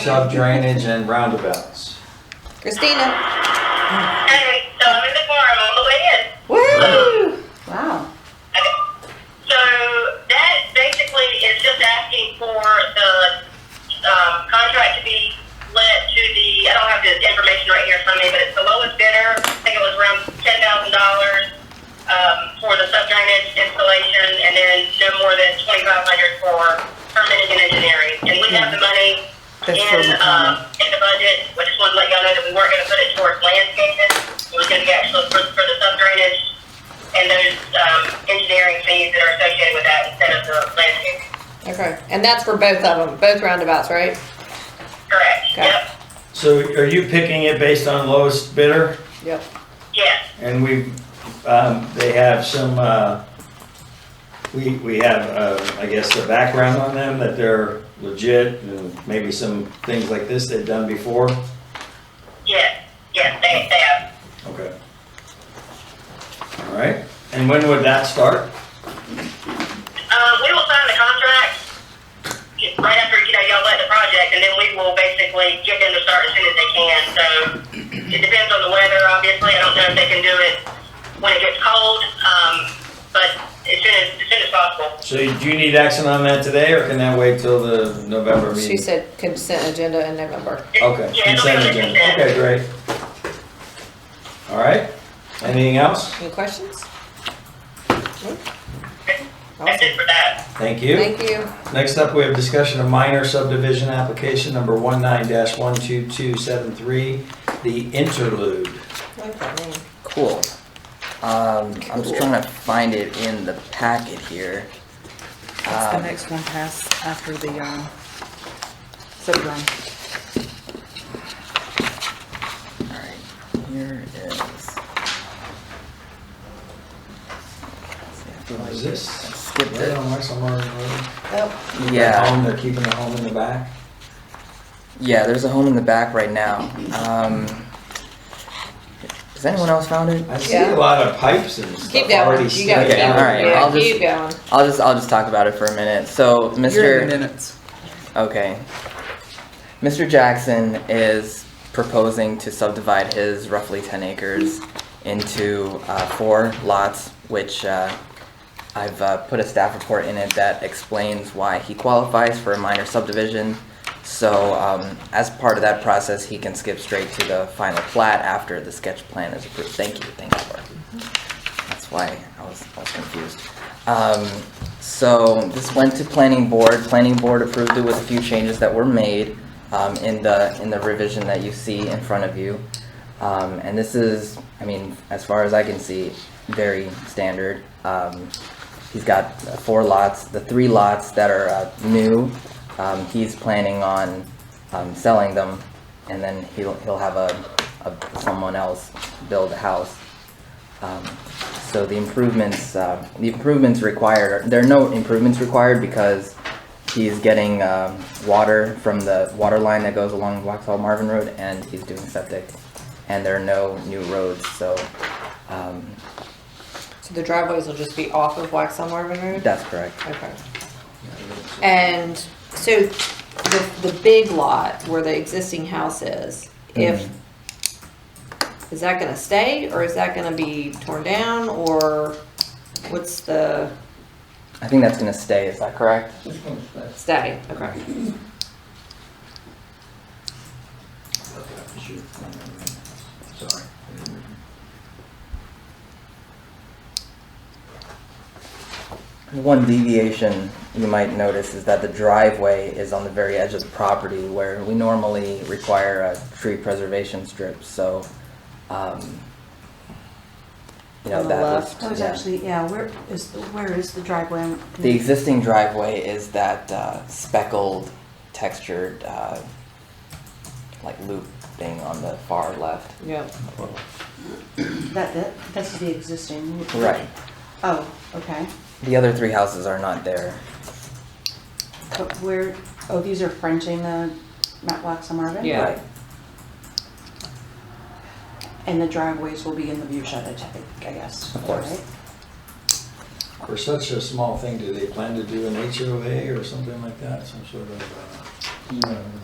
Sub drainage and roundabouts. Christina. Anyway, so I'm in the car, I'm on the way in. Woo! Wow. Okay. So that basically is just asking for the um, contract to be let to the, I don't have the information right here in front of me, but it's the lowest bidder. I think it was around ten thousand dollars um, for the sub drainage installation and then no more than twenty-five hundred for permitting and engineering. And we have the money Mm-hmm. That's in, for the um, in the budget. We just wanted to let y'all know that we weren't gonna put it towards landscaping. It was gonna be actually for, for the sub drainage and those um, engineering fees that are associated with that instead of the landscape. Okay, and that's for both of them, both roundabouts, right? Correct. Okay. Yep. So are you picking it based on lowest bidder? Yep. Yes. And we, um, they have some, uh, we, we have, uh, I guess, the background on them that they're legit and maybe some things like this they've done before? Yes. Yes. They, they have. Okay. All right. And when would that start? Uh, we will sign the contract right after you know y'all let the project, and then we will basically get them to start as soon as they can. So it depends on the weather, obviously. I don't know if they can do it when it gets cold, um, but as soon as as soon as possible. So do you need action on that today or can that wait till the November She meeting? said consent agenda in November. Okay, Yeah, it'll be on consent the agenda. consent. Okay, great. All right. Anything else? Any questions? Nope. That's Awesome. it for that. Thank you. Thank you. Next up, we have discussion of minor subdivision application number 19-12273, the interlude. I like that name. Cool. Um, I'm just Cool. trying to find it in the packet here. That's the Um, next one pass after the, um, subdrum. Alright, here it is. What is I this? skipped Right it. on West Lamar Road. Oh, Yeah, Home, They're keeping the home in the back. yeah, there's a home in the back right now. Um, has anyone else found it? I see a Yeah. lot of pipes and keep stuff going. already You gotta sticking keep, Okay, all right, yeah, I'll just- keep going. I'll just, I'll just talk about it for a minute. So, mister You're in the minutes. Okay. Mr. Jackson is proposing to subdivide his roughly 10 acres into uh, four lots, which uh, I've uh, put a staff report in it that explains why he qualifies for a minor subdivision. So um, as part of that process, he can skip straight to the final plat after the sketch plan is approved. Thank you, thank you, Laura. That's why I was, I was confused. Um, so this went to planning board, planning board approved it with a few changes that were made, um, in the, in the revision that you see in front of you. Um, and this is, I mean, as far as I can see, very standard. Um, he's got uh, four lots, the three lots that are, uh, new, um, he's planning on, um, selling them. And then he'll, he'll have a, a, someone else build a house. Um, So the improvements, uh, the improvements required, are- there are no improvements required because he's getting um, water from the water line that goes along Waxhaw Marvin Road and he's doing septic. And there are no new roads, so um, So the driveways will just be off of Waxaw Marvin Road? that's correct. Okay. And so the, the big lot where the existing house is, if, is that gonna stay or is that gonna be torn down or what's the I think that's gonna stay, is that correct? stay? Okay. Sorry. One deviation you might notice is that the driveway is on the very edge of the property where we normally require a tree preservation strip, so, um, you know, On the that was. left? I was yeah. actually, yeah, where is, the where is the driveway? I'm- The existing driveway is that uh, speckled textured, uh, like loop thing on the far left. Yep. That, that, that's the existing. Right. Oh, okay. The other three houses are not there. But where, oh, these are fronting the Matlock Marvin? Yeah. Right. And the driveways will be in the view shed, I think, I guess. Of course. right? For such a small thing, do they plan to do an HOA or something like that, some sort of, uh,